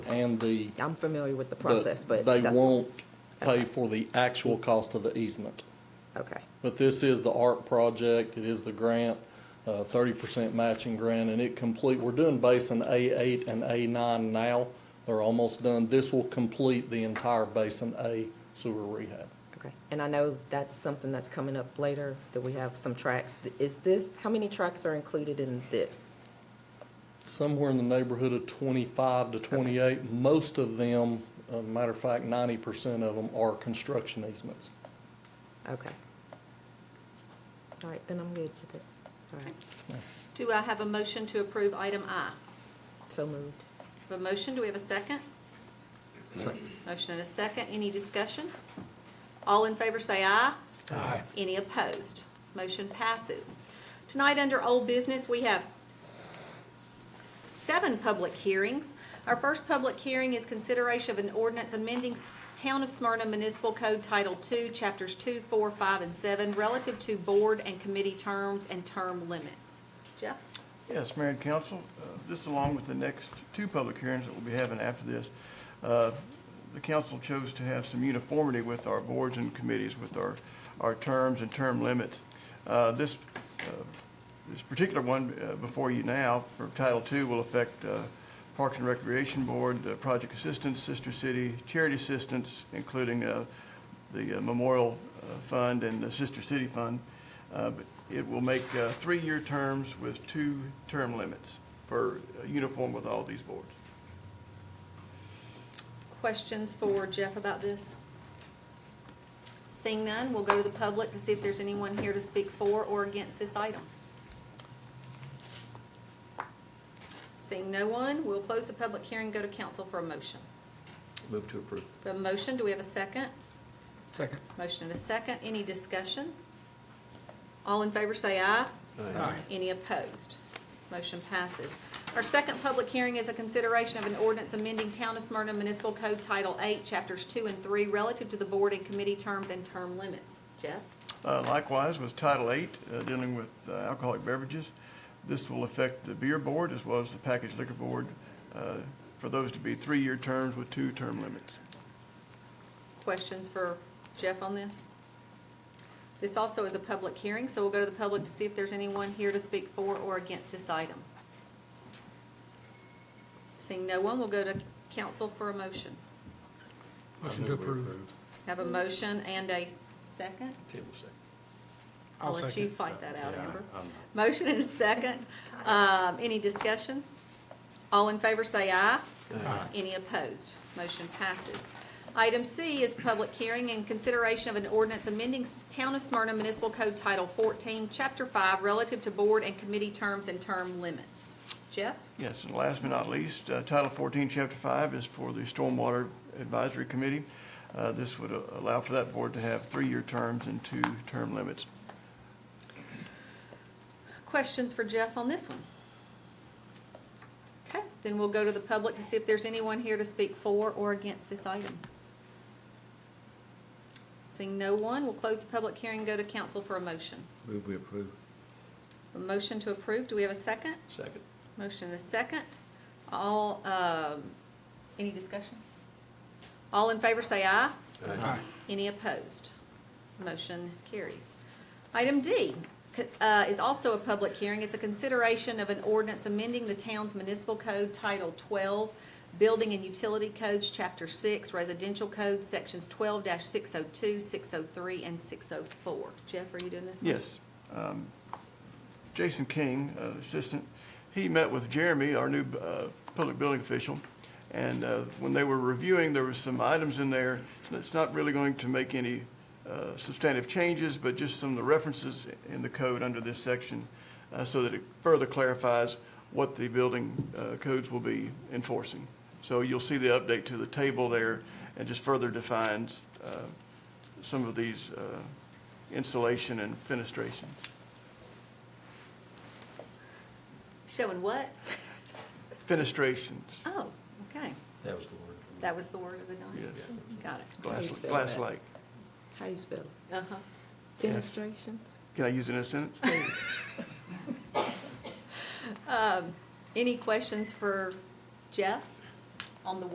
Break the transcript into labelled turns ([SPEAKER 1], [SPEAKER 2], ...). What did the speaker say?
[SPEAKER 1] and the.
[SPEAKER 2] I'm familiar with the process, but
[SPEAKER 1] They
[SPEAKER 2] that's-
[SPEAKER 1] won't pay
[SPEAKER 2] okay.
[SPEAKER 1] for the actual cost of the easement.
[SPEAKER 2] Okay,
[SPEAKER 1] But this is the art project, it is the grant, uh, thirty percent matching grant, and it complete, we're doing basin A eight and A nine now. They're almost done. This will complete the entire basin A sewer rehab.
[SPEAKER 2] okay. And I know that's something that's coming up later, that we have some tracks. Is this, how many tracks are included in this?
[SPEAKER 1] Somewhere in the neighborhood of twenty-five to twenty-eight, most of them, uh, matter of fact, ninety percent of them are construction easements.
[SPEAKER 2] Okay. All right, then I'm good with it. All right,
[SPEAKER 3] Do I have a motion to approve item I?
[SPEAKER 2] so moved.
[SPEAKER 3] Have a motion, do we have a second? Motion and a second, any discussion? All in favor say aye. Aye. Any opposed? Motion passes. Tonight, under old business, we have seven public hearings. Our first public hearing is consideration of an ordinance amending Town of Smyrna Municipal Code Title II, Chapters 2, 4, 5, and 7, relative to board and committee terms and term limits. Jeff?
[SPEAKER 4] Yes, Mayor and Council, uh, this along with the next two public hearings that we'll be having after this, uh, the council chose to have some uniformity with our boards and committees, with our, our terms and term limits. Uh, This, uh, this particular one uh, before you now for Title II will affect uh, Parks and Recreation Board, uh, Project Assistance, Sister City, Charity Assistance, including uh, the uh, Memorial uh, Fund and the Sister City Fund. Uh, but It will make uh, three-year terms with two term limits for uh, uniform with all these boards.
[SPEAKER 3] Questions for Jeff about this? Seeing none, we'll go to the public to see if there's anyone here to speak for or against this item. Seeing no one, we'll close the public hearing, go to council for a motion.
[SPEAKER 5] Move to approve.
[SPEAKER 3] We have a motion, do we have a second?
[SPEAKER 6] Second.
[SPEAKER 3] Motion and a second, any discussion? All in favor say aye.
[SPEAKER 6] Aye.
[SPEAKER 3] Any opposed? Motion passes. Our second public hearing is a consideration of an ordinance amending Town of Smyrna Municipal Code Title 8, Chapters 2 and 3, relative to the board and committee terms and term limits. Jeff?
[SPEAKER 4] Uh, Likewise, with Title VIII, uh, dealing with uh, alcoholic beverages, this will affect the beer board as well as the packaged liquor board, uh, for those to be three-year terms with two term limits.
[SPEAKER 3] Questions for Jeff on this? This also is a public hearing, so we'll go to the public to see if there's anyone here to speak for or against this item. Seeing no one, we'll go to council for a motion.
[SPEAKER 6] Motion to approve.
[SPEAKER 3] Have a motion and a second?
[SPEAKER 5] Table second.
[SPEAKER 3] I'll
[SPEAKER 6] I'll
[SPEAKER 3] let you
[SPEAKER 6] second.
[SPEAKER 3] fight that out,
[SPEAKER 5] Yeah,
[SPEAKER 3] Amber.
[SPEAKER 5] I'm-
[SPEAKER 3] Motion and a second. Um, Any discussion? All in favor say aye.
[SPEAKER 6] Aye.
[SPEAKER 3] Any opposed? Motion passes. Item C is public hearing in consideration of an ordinance amending S- Town of Smyrna Municipal Code Title 14, Chapter 5, relative to board and committee terms and term limits. Jeff?
[SPEAKER 4] Yes, and last but not least, uh, Title 14, Chapter 5 is for the Stormwater Advisory Committee. Uh, This would uh, allow for that board to have three-year terms and two term limits.
[SPEAKER 3] Questions for Jeff on this one? Okay, then we'll go to the public to see if there's anyone here to speak for or against this item. Seeing no one, we'll close the public hearing and go to council for a motion.
[SPEAKER 5] Move we approve.
[SPEAKER 3] A motion to approve, do we have a second?
[SPEAKER 5] Second.
[SPEAKER 3] Motion and a second. All, um, any discussion? All in favor say aye.
[SPEAKER 6] Aye.
[SPEAKER 3] Any opposed? Motion carries. Item D c- uh, is also a public hearing. It's a consideration of an ordinance amending the town's municipal code Title 12, Building and Utility Codes, Chapter 6, Residential Code, Sections 12-602, 603, and 604. Jeff, are you doing this one?
[SPEAKER 4] Yes. Um, Jason King, uh, assistant, he met with Jeremy, our new uh, public building official, and uh, when they were reviewing, there was some items in there. It's not really going to make any uh, substantive changes, but just some of the references in the code under this section uh, so that it further clarifies what the building uh, codes will be enforcing. So you'll see the update to the table there and just further defines uh, some of these uh, insulation and fenestration.
[SPEAKER 3] Showing what?
[SPEAKER 4] Fenestrations,
[SPEAKER 3] Oh, okay.
[SPEAKER 5] That was the word.
[SPEAKER 3] That was the word of the night?
[SPEAKER 4] yes.
[SPEAKER 3] Got it.
[SPEAKER 4] Glass,
[SPEAKER 2] Please spell
[SPEAKER 4] glass
[SPEAKER 2] that.
[SPEAKER 4] like.
[SPEAKER 2] How you spell it?
[SPEAKER 3] Uh-huh.
[SPEAKER 2] Demonstrations?
[SPEAKER 4] Can I use it in a sentence?
[SPEAKER 3] Um, Any questions for Jeff on the